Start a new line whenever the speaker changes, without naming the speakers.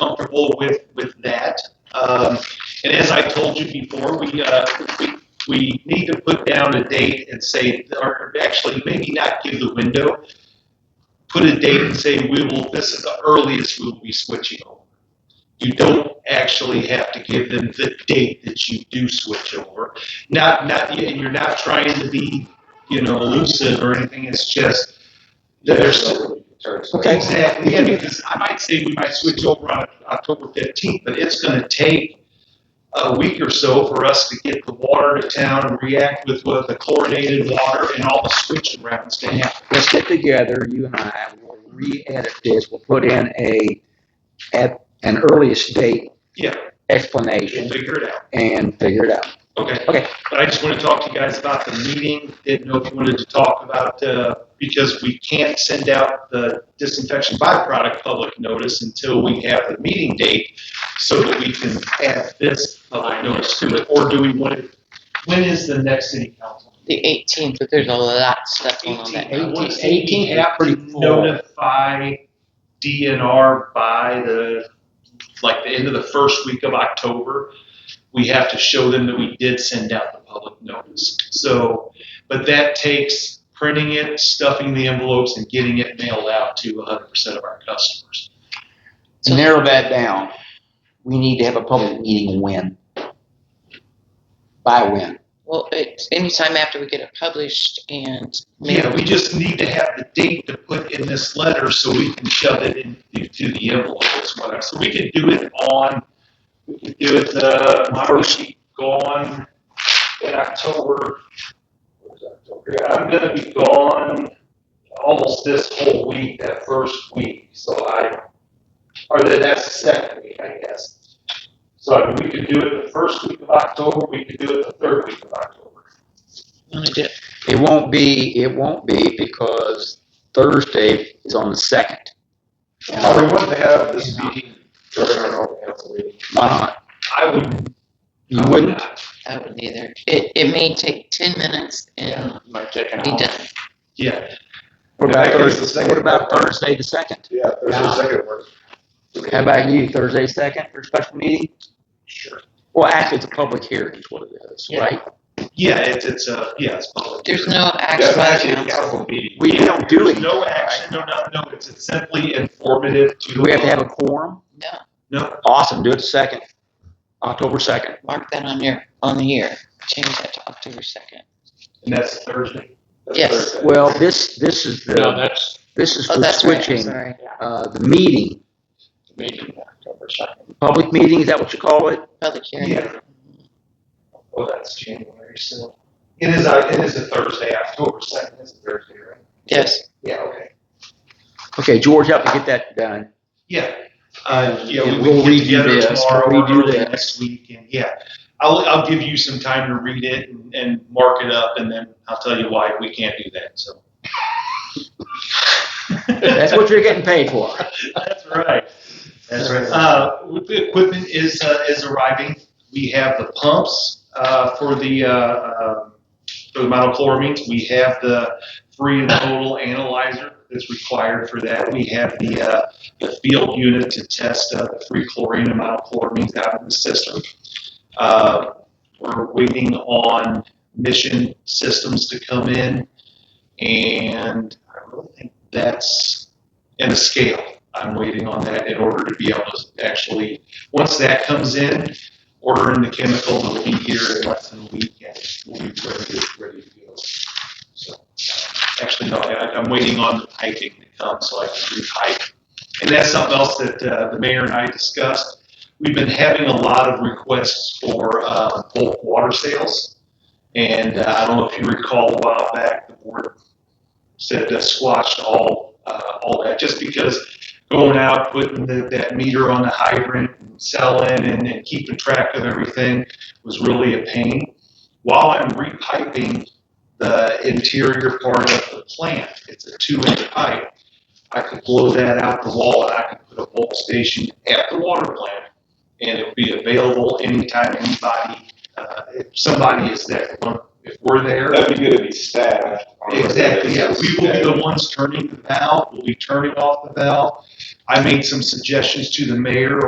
comfortable with, with that. Um, and as I told you before, we, uh, we, we need to put down a date and say, or actually maybe not give the window, put a date and say, we will, this is the earliest we'll be switching over. You don't actually have to give them the date that you do switch over. Not, not, and you're not trying to be, you know, elusive or anything, it's just, there's,
Okay.
Exactly, yeah, because uh, I might say we might switch over on October fifteenth, but it's gonna take a week or so for us to get the water to town and react with what the chlorinated water and all the switching rounds to happen.
Let's get together, you and I, we'll re-edit this, we'll put in a, at an earliest date
Yeah, we'll
explanation
figure it out,
and figure it out.
okay?
Okay.
But I just wanna talk to you guys about the meeting, didn't know if you wanted to talk about, uh, because we can't send out the disinfection byproduct public notice until we have the meeting date, so that we can add this public notice to it, or do we want to, when is the next city council?
The eighteenth, but there's a lot of stuff going on that.
Eighteen, I want to say we
18 is
have to
pretty full.
notify DNR by the, like, the end of the first week of October. We have to show them that we did send out the public notice. So, but that takes printing it, stuffing the envelopes, and getting it mailed out to hundred percent of our customers.
To narrow that down, we need to have a public meeting when? By when?
Well, it's anytime after we get it published and
Yeah,
maybe
we just need to have the date to put in this letter so we can shove it into the envelope as well. So we can do it on, we can do it, uh, my worksheet gone in October. What is October? Yeah, I'm gonna be gone almost this whole week, that first week, so I, or the next second week, I guess. So I mean, we could do it the first week of October, we could do it the third week of October.
we want to do it.
It won't be, it won't be because Thursday is on the second.
Now, we want to have this meeting during our normal council meeting.
Why not?
I would.
You wouldn't?
I wouldn't either. It, it may take ten minutes and
Might take an
be
hour.
done.
Yeah,
What about
Yeah, I guess the
Thursday,
second-
what about Thursday the second?
Yeah, there's
Yeah.
a second one.
How about you, Thursday second for special meeting?
sure.
Well, actually, it's a public hearing is what it is, right?
Yeah, it's, it's, uh, yeah, it's public.
There's no action by the council.
meeting.
We don't do
There's
it.
no action, no, no, no, it's it's simply informative to.
Do we have to have a quorum?
No,
No,
Awesome, do it second, October second.
mark that on your, on here. Change that to October second.
and that's Thursday. That's
Yes.
Thursday.
Well, this, this is
No,
the,
that's
this is
Oh,
for
that's right, I'm
switching,
sorry.
uh, the meeting,
the meeting in October second.
public meeting, is that what you call it?
Public hearing.
Yeah. Oh, that's January, so. It is, uh, it is a Thursday, October second is a Thursday, right?
Yes,
Yeah, okay.
Okay, George, help me get that done.
Yeah, uh, yeah,
And
we
we'll
will get
redo
together
this,
tomorrow
we'll
or
redo
early
this.
next week, and yeah. I'll, I'll give you some time to read it and, and mark it up, and then I'll tell you why we can't do that, so.
That's what you're getting paid for.
That's right. That's right. Uh, with the equipment is, uh, is arriving. We have the pumps, uh, for the, uh, uh, for the monochloramines. We have the free and total analyzer that's required for that. We have the, uh, the field unit to test, uh, the free chlorine and monochloramines out in the system. Uh, we're waiting on mission systems to come in and I really think that's, and the scale. I'm waiting on that in order to be able to actually, once that comes in, ordering the chemical will be here in less than a week and we'll be ready, ready to go. So, actually, no, I, I'm waiting on the piping to come so I can re-pipe. And that's something else that, uh, the mayor and I discussed. We've been having a lot of requests for, uh, bulk water sales. And uh, I don't know if you recall a while back, the board said to squash all, uh, all that, just because going out, putting the, that meter on the hydrant, selling and, and keeping track of everything was really a pain. While I'm repiping the interior part of the plant, it's a two inch pipe. I could blow that out the wall and I could put a bulk station at the water plant and it'd be available anytime anybody, uh, if somebody is there. If we're there,
That'd be good to be staffed.
Exactly, yeah, we will be the ones turning the valve, we'll be turning off the valve. I made some suggestions to the mayor